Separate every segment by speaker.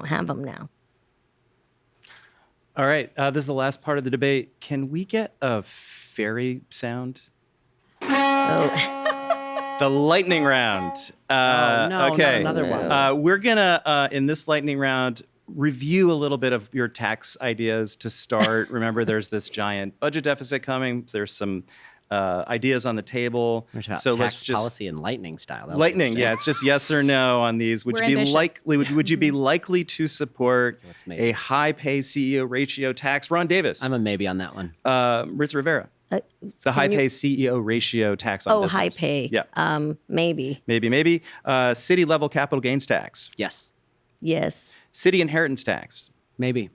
Speaker 1: don't have them now.
Speaker 2: All right. Uh, this is the last part of the debate. Can we get a fairy sound?
Speaker 1: Oh,
Speaker 2: The lightning round. Uh,
Speaker 3: Oh, no,
Speaker 2: okay.
Speaker 3: not another one.
Speaker 2: Uh, we're gonna uh, in this lightning round review a little bit of your tax ideas to start. Remember, there's this giant budget deficit coming. There's some uh, ideas on the table.
Speaker 3: We're talking about
Speaker 2: So
Speaker 3: tax
Speaker 2: let's just
Speaker 3: policy and lightning style. That was
Speaker 2: lightning.
Speaker 3: interesting.
Speaker 2: Yeah, it's just yes or no on these. Would
Speaker 4: We're
Speaker 2: you be
Speaker 4: ambitious.
Speaker 2: likely? Would, would you be likely to support
Speaker 3: Let's make
Speaker 2: a
Speaker 3: it.
Speaker 2: high pay CEO ratio tax? Ron Davis.
Speaker 3: I'm a maybe on that one.
Speaker 2: uh, Ritz Rivera.
Speaker 1: uh,
Speaker 2: The high
Speaker 1: you-
Speaker 2: pay CEO ratio tax on
Speaker 1: oh,
Speaker 2: business.
Speaker 1: high pay.
Speaker 2: Yeah.
Speaker 1: Um, maybe.
Speaker 2: Maybe, maybe. Uh, city level capital gains tax,
Speaker 3: yes,
Speaker 1: Yes.
Speaker 2: city inheritance tax,
Speaker 3: maybe.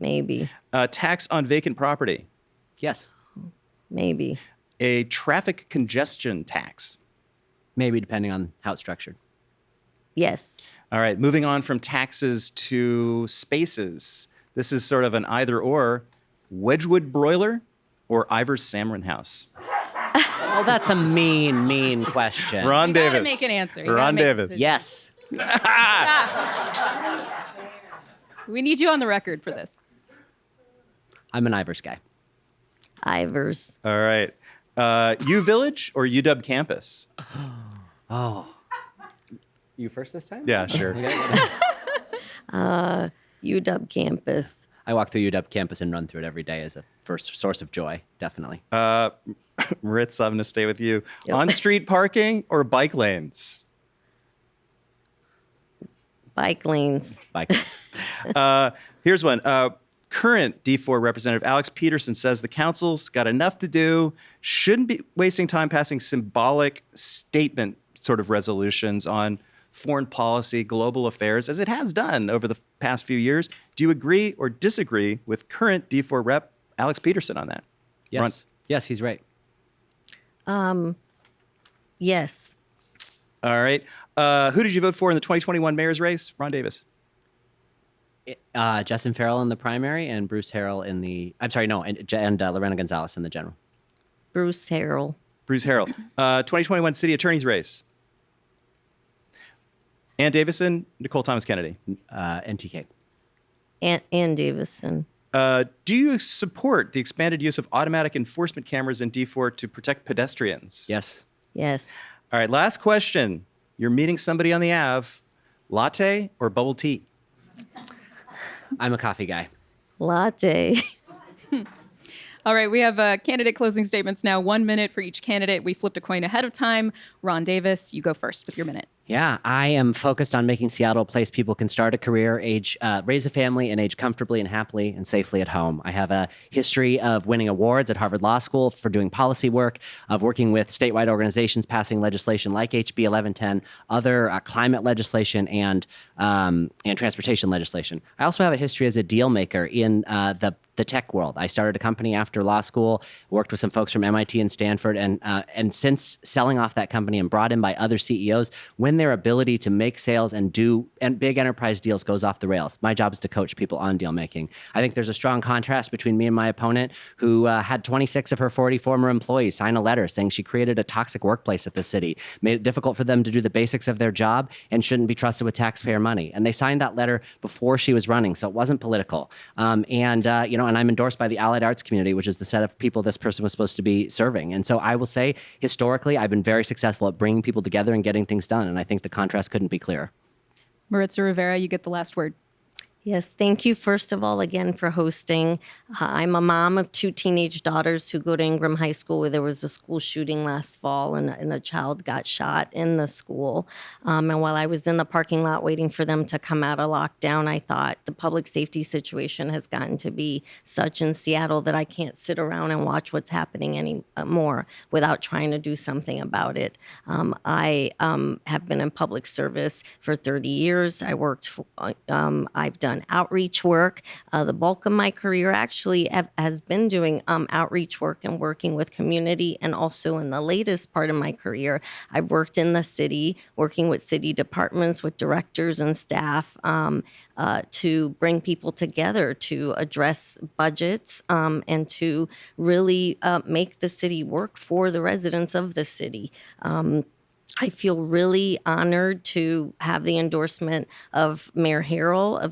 Speaker 1: Maybe.
Speaker 2: uh, tax on vacant property,
Speaker 3: Yes,
Speaker 1: Maybe.
Speaker 2: a traffic congestion tax.
Speaker 3: maybe depending on how it's structured.
Speaker 1: Yes.
Speaker 2: All right, moving on from taxes to spaces. This is sort of an either or Wedgwood broiler or Ivor Samron house.
Speaker 3: Oh, that's a mean, mean question.
Speaker 2: Ron
Speaker 4: You
Speaker 2: Davis.
Speaker 4: gotta make an answer. You gotta
Speaker 2: Ron
Speaker 4: make a
Speaker 2: Davis.
Speaker 4: decision.
Speaker 3: Yes.
Speaker 4: We need you on the record for this.
Speaker 3: I'm an Ivers guy.
Speaker 1: Ivers.
Speaker 2: All right. Uh, U Village or UW campus?
Speaker 3: You first this time?
Speaker 2: Yeah, sure.
Speaker 1: UW campus.
Speaker 3: I walk through UW campus and run through it every day as a first source of joy, definitely.
Speaker 2: Uh, Ritz, I'm going to stay with you.
Speaker 1: Yep.
Speaker 2: On street parking or bike lanes?
Speaker 1: Bike lanes.
Speaker 3: Like,
Speaker 2: Here's one. Uh, current D4 representative Alex Peterson says the council's got enough to do, shouldn't be wasting time passing symbolic statement sort of resolutions on foreign policy, global affairs, as it has done over the past few years. Do you agree or disagree with current D4 rep Alex Peterson on that?
Speaker 3: yes.
Speaker 2: Ron-
Speaker 3: Yes, he's right.
Speaker 1: Yes.
Speaker 2: All right. Uh, who did you vote for in the 2021 mayor's race? Ron Davis.
Speaker 3: Uh, Justin Farrell in the primary and Bruce Harrell in the, I'm sorry, no, and, and uh, Lorena Gonzalez in the general.
Speaker 1: Bruce Harrell.
Speaker 2: Bruce Harrell. Uh, 2021 city attorney's race. Ann Davison, Nicole Thomas Kennedy.
Speaker 3: Uh, NTK.
Speaker 1: Ann, Ann Davison.
Speaker 2: Uh, do you support the expanded use of automatic enforcement cameras in D4 to protect pedestrians?
Speaker 3: Yes.
Speaker 1: Yes.
Speaker 2: All right, last question. You're meeting somebody on the Ave, latte or bubble tea?
Speaker 3: I'm a coffee guy.
Speaker 1: Latte.
Speaker 4: All right, we have uh, candidate closing statements now. One minute for each candidate. We flipped a coin ahead of time. Ron Davis, you go first with your minute.
Speaker 3: Yeah, I am focused on making Seattle a place people can start a career, age, uh, raise a family, and age comfortably and happily and safely at home. I have a history of winning awards at Harvard Law School for doing policy work, of working with statewide organizations passing legislation like HB 1110, other uh, climate legislation, and um, and transportation legislation. I also have a history as a deal maker in uh, the the tech world. I started a company after law school, worked with some folks from MIT and Stanford, and uh, and since selling off that company and brought in by other CEOs, when their ability to make sales and do and big enterprise deals goes off the rails, my job is to coach people on deal making. I think there's a strong contrast between me and my opponent, who uh, had 26 of her 40 former employees sign a letter saying she created a toxic workplace at the city, made it difficult for them to do the basics of their job, and shouldn't be trusted with taxpayer money. And they signed that letter before she was running, so it wasn't political. Um, and uh, you know, and I'm endorsed by the Allied Arts community, which is the set of people this person was supposed to be serving. And so I will say, historically, I've been very successful at bringing people together and getting things done. And I think the contrast couldn't be clearer.
Speaker 4: Maritza Rivera, you get the last word.
Speaker 1: Yes, thank you, first of all, again for hosting. Uh, I'm a mom of two teenage daughters who go to Ingram High School, where there was a school shooting last fall and, and a child got shot in the school. Um, and while I was in the parking lot waiting for them to come out of lockdown, I thought the public safety situation has gotten to be such in Seattle that I can't sit around and watch what's happening anymore without trying to do something about it. Um, I um, have been in public service for 30 years. I worked, for, um, I've done outreach work. Uh, the bulk of my career actually have, has been doing um, outreach work and working with community. And also in the latest part of my career, I've worked in the city, working with city departments, with directors and staff um, uh, to bring people together to address budgets um, and to really uh, make the city work for the residents of the city I feel really honored to have the endorsement of Mayor Harrell of